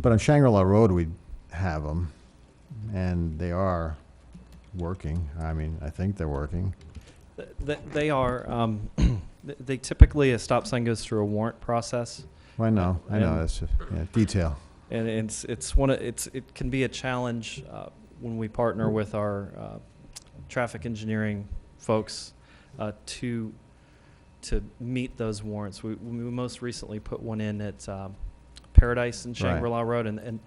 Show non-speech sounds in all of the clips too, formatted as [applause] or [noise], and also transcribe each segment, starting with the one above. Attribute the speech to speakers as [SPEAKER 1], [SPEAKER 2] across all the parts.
[SPEAKER 1] But on Shangri-La Road, we have them, and they are working. I mean, I think they're working.
[SPEAKER 2] Th- th- They are, um, [clears throat] th- they typically, a stop sign goes through a warrant process.
[SPEAKER 1] I know, I know,
[SPEAKER 2] And-
[SPEAKER 1] that's, just- yeah, detail.
[SPEAKER 2] And it's, it's one of, it's, it can be a challenge uh, when we partner with our uh, traffic engineering folks uh, to, to meet those warrants. We, we most recently put one in at um, Paradise and
[SPEAKER 1] Right.
[SPEAKER 2] Shangri-La Road. And, and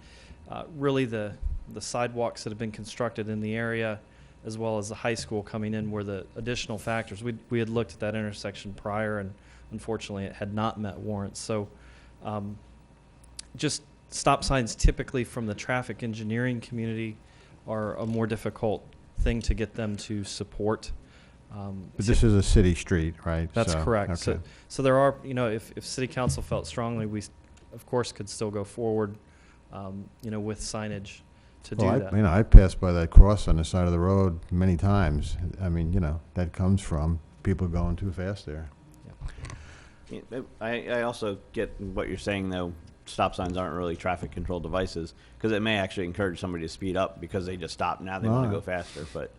[SPEAKER 2] uh, really the, the sidewalks that have been constructed in the area, as well as the high school coming in were the additional factors. We, we had looked at that intersection prior and unfortunately it had not met warrants. So um, just stop signs typically from the traffic engineering community are a more difficult thing to get them to support. Um,
[SPEAKER 1] But this is a city street, right?
[SPEAKER 2] That's
[SPEAKER 1] So,
[SPEAKER 2] correct. So,
[SPEAKER 1] okay.
[SPEAKER 2] so there are, you know, if, if city council felt strongly, we, s- of course, could still go forward, um, you know, with signage to do
[SPEAKER 1] Well, I-
[SPEAKER 2] that.
[SPEAKER 1] You know, I passed by that cross on the side of the road many times. I mean, you know, that comes from people going too fast there.
[SPEAKER 3] Yeah, but I, I also get what you're saying, though. Stop signs aren't really traffic control devices because it may actually encourage somebody to speed up because they just stop now. They want
[SPEAKER 1] Ah.
[SPEAKER 3] to go faster, but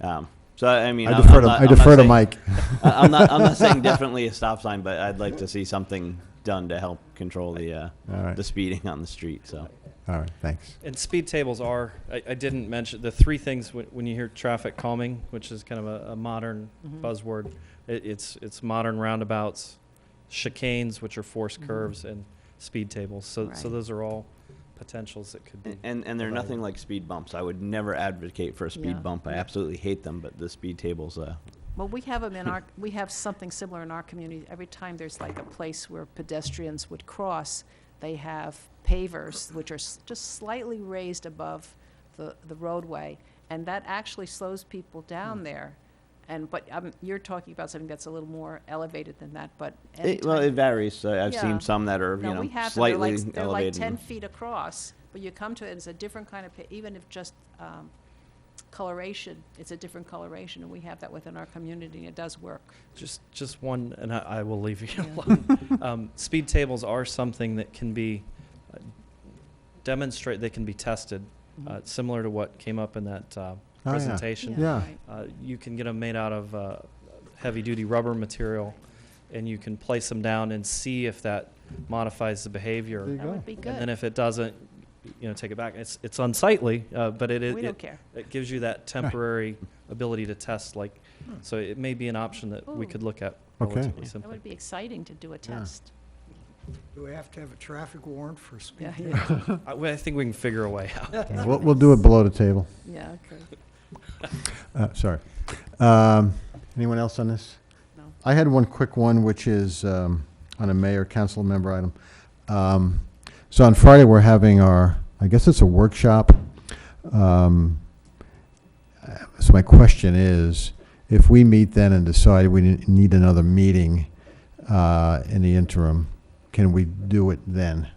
[SPEAKER 3] um, so I I mean,
[SPEAKER 1] I
[SPEAKER 3] I'm-
[SPEAKER 1] defer
[SPEAKER 3] I'm
[SPEAKER 1] to,
[SPEAKER 3] not-
[SPEAKER 1] I
[SPEAKER 3] I'm not
[SPEAKER 1] defer to
[SPEAKER 3] saying-
[SPEAKER 1] Mike.
[SPEAKER 3] I- [laughs] I'm not.
[SPEAKER 1] [laughs]
[SPEAKER 3] I'm not saying definitely a stop sign, but I'd like to see something done to help control the uh,
[SPEAKER 1] All right.
[SPEAKER 3] the speeding on the street. So
[SPEAKER 1] All right, thanks.
[SPEAKER 2] And speed tables are, I, I didn't mention, the three things when, when you hear traffic calming, which is kind of a, a modern
[SPEAKER 4] Mm-hmm.
[SPEAKER 2] buzzword, it, it's, it's modern roundabouts, chicanes, which are forced
[SPEAKER 4] Mhm.
[SPEAKER 2] curves, and speed tables. So, so
[SPEAKER 4] Right.
[SPEAKER 2] those are all potentials that could be.
[SPEAKER 3] and and they're
[SPEAKER 2] Right.
[SPEAKER 3] nothing like speed bumps. I would never advocate for a speed
[SPEAKER 4] Yeah.
[SPEAKER 3] bump. I absolutely hate them, but the speed tables. Uh,
[SPEAKER 4] Well, we have them in
[SPEAKER 3] [laughs]
[SPEAKER 4] our, we have something similar in our community. Every time there's like a place where pedestrians would cross, they have pavers, which are s- just slightly raised above the, the roadway, and that actually slows people
[SPEAKER 3] Hmm.
[SPEAKER 4] down there. And, but um, you're talking about something that's a little more elevated than that, but
[SPEAKER 3] it, well, it
[SPEAKER 4] anytime-
[SPEAKER 3] varies. So I've
[SPEAKER 4] Yeah.
[SPEAKER 3] seen some that are you
[SPEAKER 4] No,
[SPEAKER 3] know
[SPEAKER 4] we have them, they're
[SPEAKER 3] slightly
[SPEAKER 4] like, s- they're like
[SPEAKER 3] elevated.
[SPEAKER 4] ten feet across, but you come to it, it's a different kind of, pa- even if just um, coloration, it's a different coloration, and we have that within our community, and it does work.
[SPEAKER 2] Just, just one, and I, I will leave you
[SPEAKER 4] Yeah. [laughs]
[SPEAKER 2] alone. Um, speed tables are something that can be uh, demonstrate, they can be tested,
[SPEAKER 4] Mm-hmm.
[SPEAKER 2] uh, similar to what came up in that, uh,
[SPEAKER 1] Oh, yeah.
[SPEAKER 2] presentation.
[SPEAKER 1] Yeah.
[SPEAKER 4] right.
[SPEAKER 2] Uh, you can get them made out of uh, heavy-duty rubber material, and you can place them down and see if that modifies the behavior.
[SPEAKER 1] There you
[SPEAKER 4] That
[SPEAKER 1] go.
[SPEAKER 4] would be
[SPEAKER 2] And then
[SPEAKER 4] good.
[SPEAKER 2] if it doesn't, you know, take it back. It's it's unsightly, uh, but it it,
[SPEAKER 4] We don't
[SPEAKER 2] it,
[SPEAKER 4] care.
[SPEAKER 2] it gives you that temporary ability to test. Like, so it may be an option that we could
[SPEAKER 4] Hmm. Ooh.
[SPEAKER 2] look at
[SPEAKER 1] Okay.
[SPEAKER 2] relatively
[SPEAKER 4] That
[SPEAKER 2] simply.
[SPEAKER 4] would be exciting to do a
[SPEAKER 1] Yeah.
[SPEAKER 4] test.
[SPEAKER 5] Do we have to have a traffic warrant for speed?
[SPEAKER 4] Yeah, yeah,
[SPEAKER 2] I, well, I think we can figure a way out.
[SPEAKER 1] We'll, we'll do it below the table.
[SPEAKER 4] yeah,
[SPEAKER 1] [laughs]
[SPEAKER 4] okay.
[SPEAKER 1] Uh, sorry. Um, anyone else on this?
[SPEAKER 4] No.
[SPEAKER 1] I had one quick one, which is, um, on a mayor council member item. Um, so on Friday, we're having our, I guess it's a workshop. Um, uh, so my question is, if we meet then and decide we n- need another meeting, uh, in the interim, can we do it then?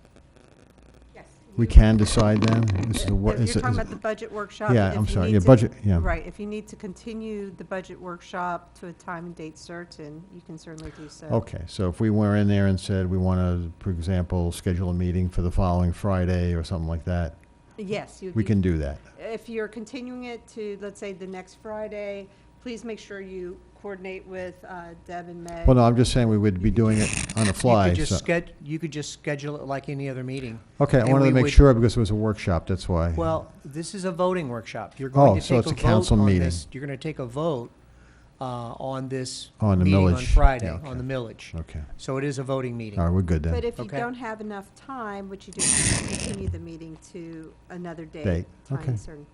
[SPEAKER 6] Yes.
[SPEAKER 1] We
[SPEAKER 6] you-
[SPEAKER 1] can decide then? This is a wor-
[SPEAKER 6] If
[SPEAKER 1] is it-
[SPEAKER 6] You're talking
[SPEAKER 1] is it-
[SPEAKER 6] about the budget workshop.
[SPEAKER 1] Yeah,
[SPEAKER 6] if
[SPEAKER 1] I'm
[SPEAKER 6] you
[SPEAKER 1] sorry,
[SPEAKER 6] need
[SPEAKER 1] yeah,
[SPEAKER 6] to-
[SPEAKER 1] budget, yeah.
[SPEAKER 6] Right, if you need to continue the budget workshop to a time and date certain, you can certainly do so.
[SPEAKER 5] Oh.
[SPEAKER 1] Okay, so if we were in there and said we want to, for example, schedule a meeting for the following Friday or something like that,
[SPEAKER 6] Yes, you.
[SPEAKER 1] we can do that.
[SPEAKER 6] If you're continuing it to, let's say, the next Friday, please make sure you coordinate with uh, Deb and Meg.
[SPEAKER 1] Well, no, I'm just saying we would be doing it on the fly.
[SPEAKER 5] You could
[SPEAKER 1] so-
[SPEAKER 5] just sched, you could just schedule it like any other meeting.
[SPEAKER 1] Okay, I
[SPEAKER 5] and
[SPEAKER 1] wanted to
[SPEAKER 5] we
[SPEAKER 1] make
[SPEAKER 5] would-
[SPEAKER 1] sure because it was a workshop, that's why.
[SPEAKER 5] Well, this is a voting workshop. You're
[SPEAKER 1] Oh,
[SPEAKER 5] going to
[SPEAKER 1] so
[SPEAKER 5] take
[SPEAKER 1] it's
[SPEAKER 5] a
[SPEAKER 1] a council
[SPEAKER 5] vote on
[SPEAKER 1] meeting.
[SPEAKER 5] this. You're going to take a vote uh, on this
[SPEAKER 1] On the
[SPEAKER 5] meeting on
[SPEAKER 1] millage. Yeah,
[SPEAKER 5] Friday,
[SPEAKER 1] okay.
[SPEAKER 5] on the millage.
[SPEAKER 1] Okay,
[SPEAKER 5] So it is a voting meeting.
[SPEAKER 1] all right, we're good
[SPEAKER 6] But
[SPEAKER 1] then.
[SPEAKER 6] if you
[SPEAKER 5] Okay.
[SPEAKER 6] don't have enough time, what you do is you continue the meeting to another
[SPEAKER 1] Date,
[SPEAKER 6] date.
[SPEAKER 1] okay.
[SPEAKER 6] Time certain.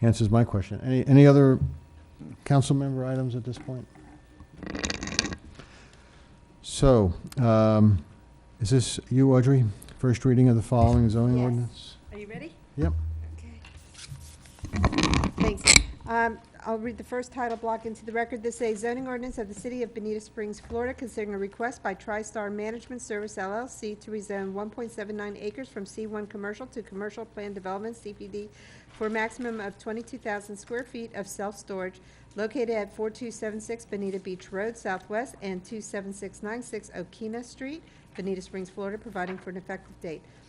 [SPEAKER 1] Answers my question. Any, any other council member items at this point? So, um, is this you, Audrey? First reading of the following zoning
[SPEAKER 6] Yes.
[SPEAKER 1] ordinance?
[SPEAKER 6] Are you ready?
[SPEAKER 1] Yep.
[SPEAKER 6] Okay. Thanks. Um, I'll read the first title block into the record. This is a zoning ordinance of the city of Benita Springs, Florida, considering a request by TriStar Management Service LLC to rezone one point seven nine acres from C one commercial to commercial plan development, CPD, for a maximum of twenty-two thousand square feet of self-storage located at four two seven six Benita Beach Road Southwest and two seven six nine six Okina Street, Benita Springs, Florida, providing for an effective date.